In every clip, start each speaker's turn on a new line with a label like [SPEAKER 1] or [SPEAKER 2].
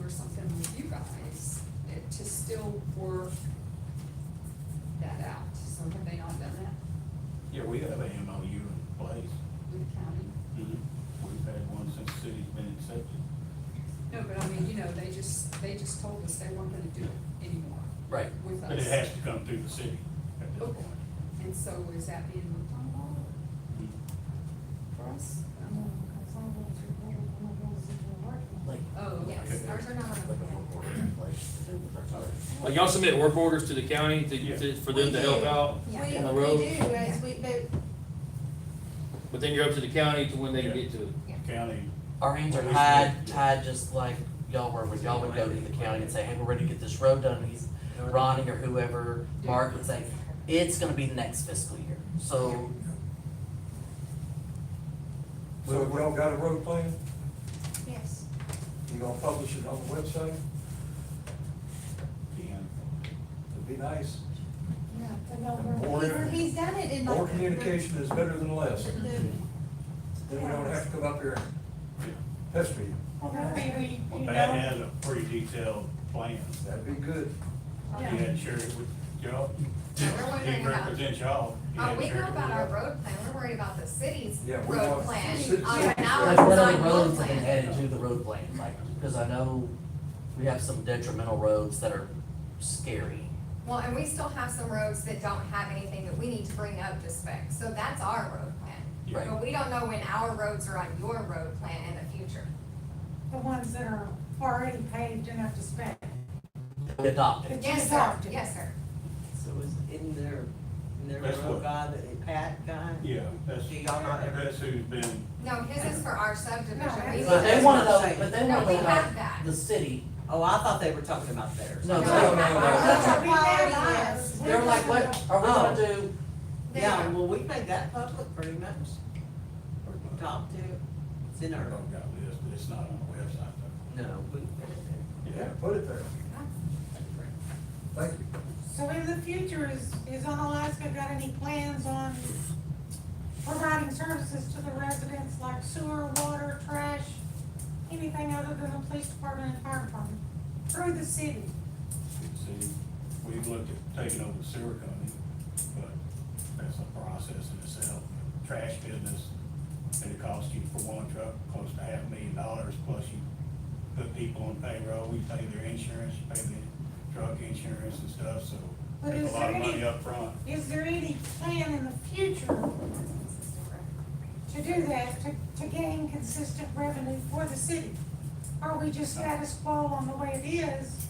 [SPEAKER 1] or something with you guys, it to still work that out, so have they not done that
[SPEAKER 2] Yeah, we have a MOU in place.
[SPEAKER 1] with the county?
[SPEAKER 3] Mm-hmm.
[SPEAKER 2] We've had one since the city's been accepted.
[SPEAKER 1] No, but I mean, you know, they just, they just told us they weren't gonna do it anymore
[SPEAKER 4] Right.
[SPEAKER 1] with us.
[SPEAKER 2] But it has to come through the city at this
[SPEAKER 1] Okay,
[SPEAKER 2] point.
[SPEAKER 1] and so is that being looked on at all
[SPEAKER 5] Mm-hmm.
[SPEAKER 1] for us? Um,
[SPEAKER 6] Like,
[SPEAKER 1] Oh, yes,
[SPEAKER 6] ours are not on
[SPEAKER 1] the
[SPEAKER 6] the board, like.
[SPEAKER 7] Like y'all submit work orders to the county
[SPEAKER 2] Yeah.
[SPEAKER 7] to, to, for them to help out
[SPEAKER 6] Yeah.
[SPEAKER 7] on the
[SPEAKER 8] We, we
[SPEAKER 7] road,
[SPEAKER 8] do, as we, but
[SPEAKER 7] but then you're up to the county to when they
[SPEAKER 2] Yeah.
[SPEAKER 7] get to it.
[SPEAKER 2] County,
[SPEAKER 6] Our hands are tied, tied just like y'all were, when y'all would go to the county and say, hey, we're ready to get this road done, and he's, Ronnie or whoever, Mark would say, it's gonna be next fiscal year, so.
[SPEAKER 9] So have y'all got a road plan?
[SPEAKER 8] yes,
[SPEAKER 9] You gonna publish it on the website?
[SPEAKER 2] being,
[SPEAKER 9] It'd be nice.
[SPEAKER 8] no, but
[SPEAKER 9] And
[SPEAKER 8] no,
[SPEAKER 9] more-
[SPEAKER 8] we're- he's, he's done it in like.
[SPEAKER 9] More communication is better than less.
[SPEAKER 8] The-
[SPEAKER 9] Then we don't have to come up here and pester you.
[SPEAKER 2] well, that has a pretty detailed plan.
[SPEAKER 9] That'd be good.
[SPEAKER 2] He
[SPEAKER 8] Yeah.
[SPEAKER 2] had shared it with y'all.
[SPEAKER 6] We're
[SPEAKER 8] wondering
[SPEAKER 2] He
[SPEAKER 8] about-
[SPEAKER 2] represents y'all. He
[SPEAKER 5] Oh,
[SPEAKER 2] had
[SPEAKER 5] we
[SPEAKER 2] shared
[SPEAKER 5] know
[SPEAKER 2] it
[SPEAKER 5] about
[SPEAKER 2] with
[SPEAKER 5] our
[SPEAKER 2] y'all.
[SPEAKER 5] road plan, we're worried about the city's
[SPEAKER 9] Yeah, we
[SPEAKER 5] road
[SPEAKER 9] want-
[SPEAKER 5] plan,
[SPEAKER 9] City-
[SPEAKER 5] oh, and now
[SPEAKER 9] That's
[SPEAKER 5] we're
[SPEAKER 9] what
[SPEAKER 5] designing
[SPEAKER 9] I'm-
[SPEAKER 5] road
[SPEAKER 6] roads have been
[SPEAKER 5] plan.
[SPEAKER 6] added to the road plan, like, because I know we have some detrimental roads that are scary.
[SPEAKER 5] Well, and we still have some roads that don't have anything that we need to bring up to spec, so that's our road
[SPEAKER 6] Yeah. Right.
[SPEAKER 5] plan. But we don't know when our roads are on your road plan in the future.
[SPEAKER 10] The ones that are already paved and up to spec.
[SPEAKER 6] We adopted.
[SPEAKER 5] Yes, sir, yes, sir.
[SPEAKER 3] So it was in their, in their
[SPEAKER 2] That's what-
[SPEAKER 3] road guy, the Pat guy?
[SPEAKER 2] Yeah, that's,
[SPEAKER 3] Do y'all not ever-
[SPEAKER 2] that's who's been,
[SPEAKER 5] No, his is for our subdivision. We-
[SPEAKER 6] But they wanted to, but they
[SPEAKER 5] No,
[SPEAKER 6] wanted
[SPEAKER 5] we
[SPEAKER 6] to,
[SPEAKER 5] have that.
[SPEAKER 6] like, the city,
[SPEAKER 3] Oh, I thought they were talking about theirs.
[SPEAKER 6] no, no,
[SPEAKER 5] No,
[SPEAKER 6] no, no,
[SPEAKER 5] no,
[SPEAKER 6] that's
[SPEAKER 10] That's
[SPEAKER 6] not-
[SPEAKER 10] what we have
[SPEAKER 8] priority
[SPEAKER 10] ours.
[SPEAKER 6] They're like, what, are we gonna do
[SPEAKER 5] They
[SPEAKER 3] Yeah,
[SPEAKER 5] are.
[SPEAKER 3] well, we made that public pretty much. Or talked to, it's in
[SPEAKER 2] I
[SPEAKER 3] our,
[SPEAKER 2] don't got this, but it's not on the website though.
[SPEAKER 3] no, we.
[SPEAKER 9] Yeah, put it there. Thank you.
[SPEAKER 10] So in the future, is, is Onalaska got any plans on providing services to the residents like sewer, water, trash? Anything other than the police department and fire department through the city?
[SPEAKER 2] See, we've looked at taking over the sewer company, but that's a process in itself. Trash business, it costs you for one truck, close to half a million dollars, plus you put people on payroll, we pay their insurance, you pay the truck insurance and stuff, so
[SPEAKER 10] But
[SPEAKER 2] there's
[SPEAKER 10] is
[SPEAKER 2] a lot
[SPEAKER 10] there
[SPEAKER 2] of
[SPEAKER 10] any-
[SPEAKER 2] money up front.
[SPEAKER 10] Is there any plan in the future to do that, to, to gain consistent revenue for the city? Are we just status quo on the way it is?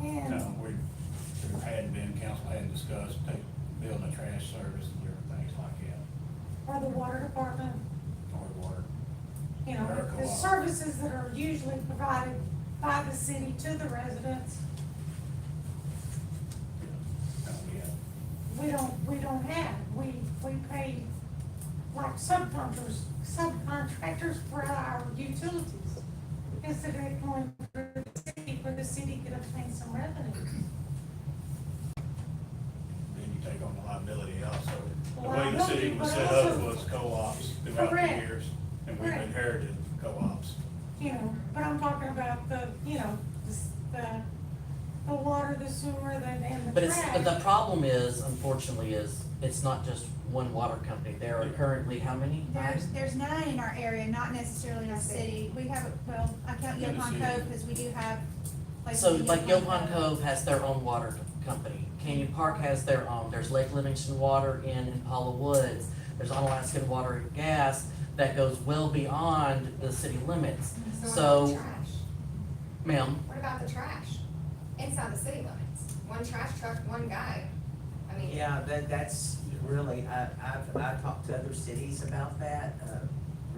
[SPEAKER 10] And
[SPEAKER 2] No, Uh, we, there hadn't been, council hadn't discussed, take, building a trash service and different things like that,
[SPEAKER 10] for the water department,
[SPEAKER 2] or water.
[SPEAKER 10] you know, the services that are usually provided by the city to the residents,
[SPEAKER 2] No, we haven't.
[SPEAKER 10] we don't, we don't have. We, we pay like subcontractors, subcontractors for our utilities. Instead of going through the city, where the city could obtain some revenue.
[SPEAKER 2] then you take on the liability also. The way the city was set up was co-ops throughout the
[SPEAKER 10] Correct.
[SPEAKER 2] years, and we've
[SPEAKER 10] Correct.
[SPEAKER 2] inherited co-ops.
[SPEAKER 10] you know, but I'm talking about the, you know, the s- the, the water, the sewer, the, and the
[SPEAKER 6] But it's,
[SPEAKER 10] trash.
[SPEAKER 6] but the problem is, unfortunately, is it's not just one water company. There are currently how many?
[SPEAKER 8] There's, there's nine in our area, not necessarily in our city. We have, well, I count
[SPEAKER 2] In the
[SPEAKER 8] Yopon
[SPEAKER 2] city.
[SPEAKER 8] Cove because we do have. places
[SPEAKER 6] So
[SPEAKER 8] in
[SPEAKER 6] like Yopon Cove has their own water company. Canyon Park has their own. There's Lake Livingston Water in Impala Woods. There's Onalaska Water and Gas that goes well beyond the city limits.
[SPEAKER 5] So what about the
[SPEAKER 6] So-
[SPEAKER 5] trash?
[SPEAKER 6] Ma'am,
[SPEAKER 5] What about the trash? Inside the city limits, one trash truck, one guy. I mean.
[SPEAKER 3] Yeah, that, that's really, I, I've, I've talked to other cities about that, uh,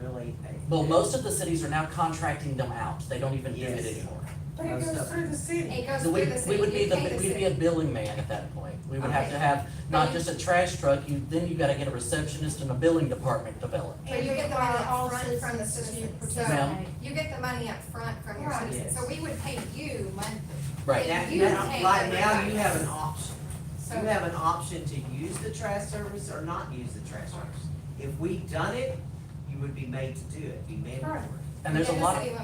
[SPEAKER 3] really. I-
[SPEAKER 6] well, most of the cities are now contracting them out. They don't even do it
[SPEAKER 3] Yes.
[SPEAKER 6] anymore.
[SPEAKER 10] But it goes through the city.
[SPEAKER 5] It goes
[SPEAKER 6] So
[SPEAKER 5] through
[SPEAKER 6] we,
[SPEAKER 5] the
[SPEAKER 6] we
[SPEAKER 5] city,
[SPEAKER 6] would be
[SPEAKER 5] you
[SPEAKER 6] the,
[SPEAKER 5] pay the
[SPEAKER 6] we'd be a
[SPEAKER 5] city.
[SPEAKER 6] billing man at that point. We would have
[SPEAKER 5] Okay.
[SPEAKER 6] to have not just a trash truck, you, then you gotta get a receptionist and a billing department developed.
[SPEAKER 5] But you get the money
[SPEAKER 8] All
[SPEAKER 5] up front from the
[SPEAKER 8] citizens to
[SPEAKER 5] citizens, so
[SPEAKER 6] participate.
[SPEAKER 5] you get the money up front from your
[SPEAKER 10] Right.
[SPEAKER 5] citizens, so we would pay you monthly.
[SPEAKER 6] Right.
[SPEAKER 5] And
[SPEAKER 3] Now,
[SPEAKER 5] you
[SPEAKER 3] now,
[SPEAKER 5] pay
[SPEAKER 3] like now, you
[SPEAKER 5] everybody.
[SPEAKER 3] have an option.
[SPEAKER 5] So,
[SPEAKER 3] You have an option to use the trash service or not use the trash service. If we done it, you would be made to do it, be mandatory.
[SPEAKER 6] And there's a
[SPEAKER 5] within the
[SPEAKER 6] lot of
[SPEAKER 5] city limits.